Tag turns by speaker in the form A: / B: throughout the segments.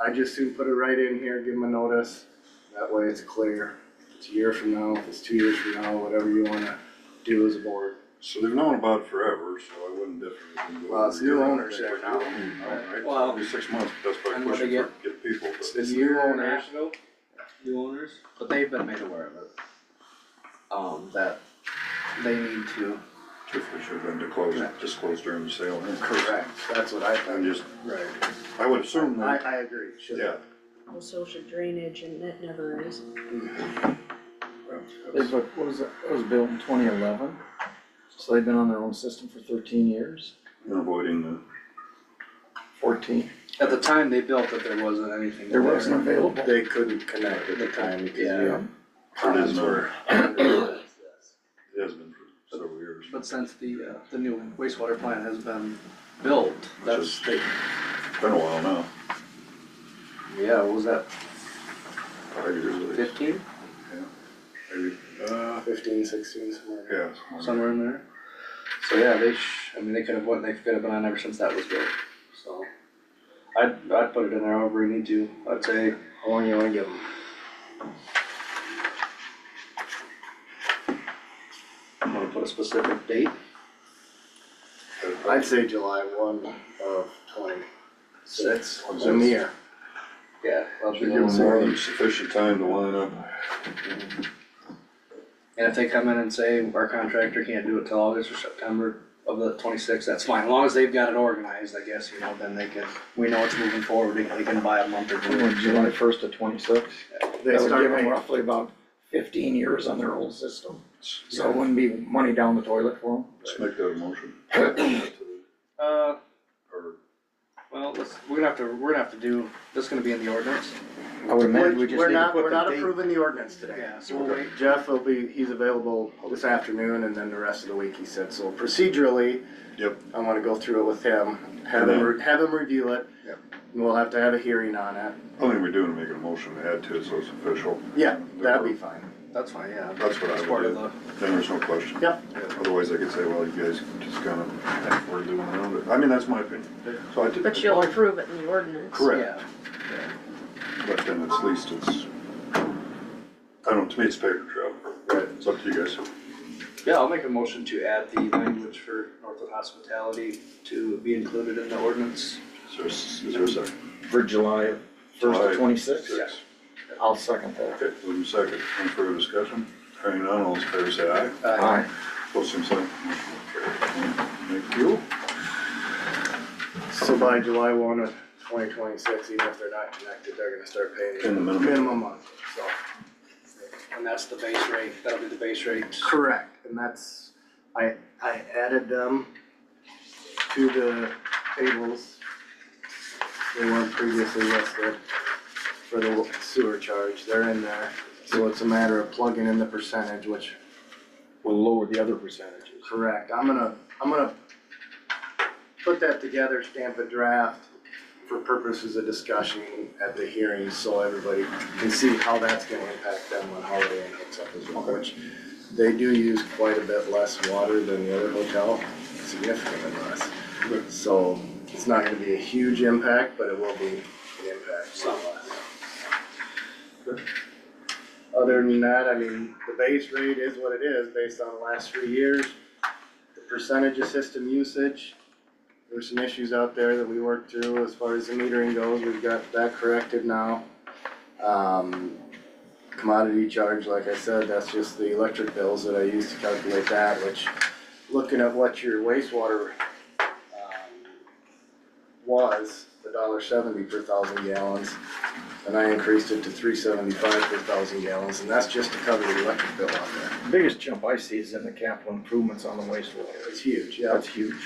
A: I just soon put it right in here, give them a notice, that way it's clear. If It's a year from now, if it's two years from now, whatever you wanna do as a board.
B: So they've known about it forever, so I wouldn't differ.
A: Well, it's new owners there now.
C: Well-
B: Alright, well, it'll be six months, but that's
C: And
B: by
C: what
B: pushing
C: they
B: for, get people,
A: It's
B: but
A: the
C: It's
A: new
C: their
A: owners,
C: national, New owners?
D: But they've been made aware of it. Um, that they need to.
B: truthfully should have been disclosed, disclosed during the sale. anyway.
A: correct, that's what I
B: I'm
A: think.
B: just,
A: Right.
B: I would assume
A: I,
B: that,
A: I agree, should.
B: yeah.
E: Well, so should drainage and that never is.
F: It's what, what was it, it was built in twenty eleven, so they've been on their own system for thirteen years,
B: You're avoiding the,
F: fourteen.
D: At the time they built it, there wasn't anything.
F: There wasn't available.
A: They couldn't connect at the time because
D: Yeah.
A: we had
B: it is
A: ponds
B: now,
A: were.
B: it has been for several years.
D: But since the, uh, the new wastewater plant has been built, that's,
B: is- Been a while now,
D: yeah, what was that
B: five years at least,
D: fifteen?
B: maybe, uh,
A: Fifteen, sixteen, somewhere.
B: yeah.
D: Somewhere in there. So yeah, they sh, I mean, they could have, went. they could have been on ever since that was built, so. I'd, I'd put it in there however we need to, I'd say,
A: How long you wanna give them?
D: I'm gonna put a specific date,
A: I'd say July one of twenty-six,
B: Six.
A: the year.
D: yeah. that'd be
B: Should
D: the
B: give
D: one.
B: them more than sufficient time to line up.
D: And if they come in and say, our contractor can't do it till August or September of the twenty-sixth, that's fine, as long as they've got it organized, I guess, you know, then they can, we know it's moving forward, they can buy a month or
F: From
D: two.
F: July first to twenty-six,
A: They
F: that would
A: start
F: give them
A: making,
F: roughly about fifteen years on their old system, so it wouldn't be money down the toilet for them.
B: Let's make that a motion.
D: Uh,
B: Or,
D: well, let's, we're gonna have to, we're gonna have to do, this is gonna be in the ordinance,
F: I would
A: we're,
F: imagine we just
A: we're
F: need to
A: not,
F: put
A: we're
F: the
A: not
F: date.
A: approving the ordinance today.
D: yeah, so we'll wait,
A: Jeff will be, he's available this afternoon and then the rest of the week, he said, so procedurally,
B: Yep.
A: I wanna go through it with him, have him, re- have him review it.
B: Yep.
A: And we'll have to have a hearing on it,
B: I think we're doing, making a motion to add to it, so it's official.
A: yeah, that'd be fine.
D: that's fine, yeah.
B: That's what I
D: It's
B: would
D: part of
B: do.
D: the-
B: Then there's no question.
A: Yep.
B: Otherwise, I could say, well, you guys just kind of, we're doing around it. I mean, that's my opinion. So I did.
E: But you'll approve it in the ordinance.
B: Correct,
D: Yeah,
B: but then at least it's, I don't, to me, it's paper trail. Right. It's up to you guys.
D: yeah, I'll make a motion to add the language for Northland Hospitality to be included in the ordinance.
B: Is there, a s- is there a second?
F: For July first
B: July
F: to twenty-six,
B: sixth?
F: I'll second that.
B: Okay, move in second. Any further discussion? Hearing none, all those in favor say aye.
F: Aye.
B: Both same sign. Motion carried. Thank you.
A: So by July one of twenty twenty-six, even if they're not connected, they're gonna start
B: In
A: paying
B: the minimum.
A: minimum month, so.
D: And that's the base rate, that'll be the base rate.
A: Correct, and that's, I, I added them to the tables. They weren't previously listed for the sewer charge, they're in there, so it's a matter of plugging in the percentage, which,
C: Will lower the other percentages.
A: correct, I'm gonna, I'm gonna put that together, stamp a draft for purposes of discussion at the hearing, so everybody can see how that's gonna impact them when Holiday Inn hooks up as well, which they do use quite a bit less water than the other hotel, significantly less. So it's not gonna be a huge impact, but it will be an impact somewhat. Other than that, I mean, the base rate is what it is based on the last three years. The percentage of system usage, there's some issues out there that we worked through as far as the metering goes, we've got that corrected now. Um, commodity charge, like I said, that's just the electric bills that I use to calculate that, which, looking at what your wastewater um, was, the dollar seventy per thousand gallons, and I increased it to three seventy-five per thousand gallons, and that's just to cover the electric bill on there.
F: Biggest jump I see is in the capital improvements on the wastewater.
A: It's huge, yeah.
F: That's huge.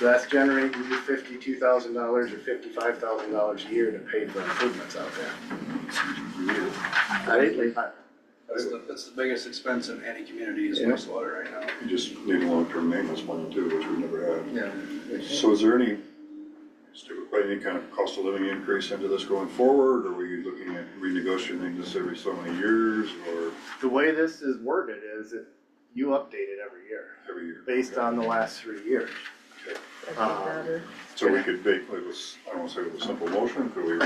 A: So that's generating you fifty-two thousand dollars or fifty-five thousand dollars a year to pay for improvements out there. I didn't- I-
D: That's the, that's the biggest expense in any community is
A: Yeah.
D: wastewater right now.
B: You just need long-term maintenance money too, which we never had.
D: Yeah.
B: So is there any, stupid, but any kind of cost of living increase into this going forward? Are we looking at renegotiating this every so many years or
A: The way this is worded is that you update it every year.
B: every year?
A: based on the last three years.
E: That'd be
A: Um,
E: better.
B: So we could make, it was, I don't wanna say it was a simple motion, could we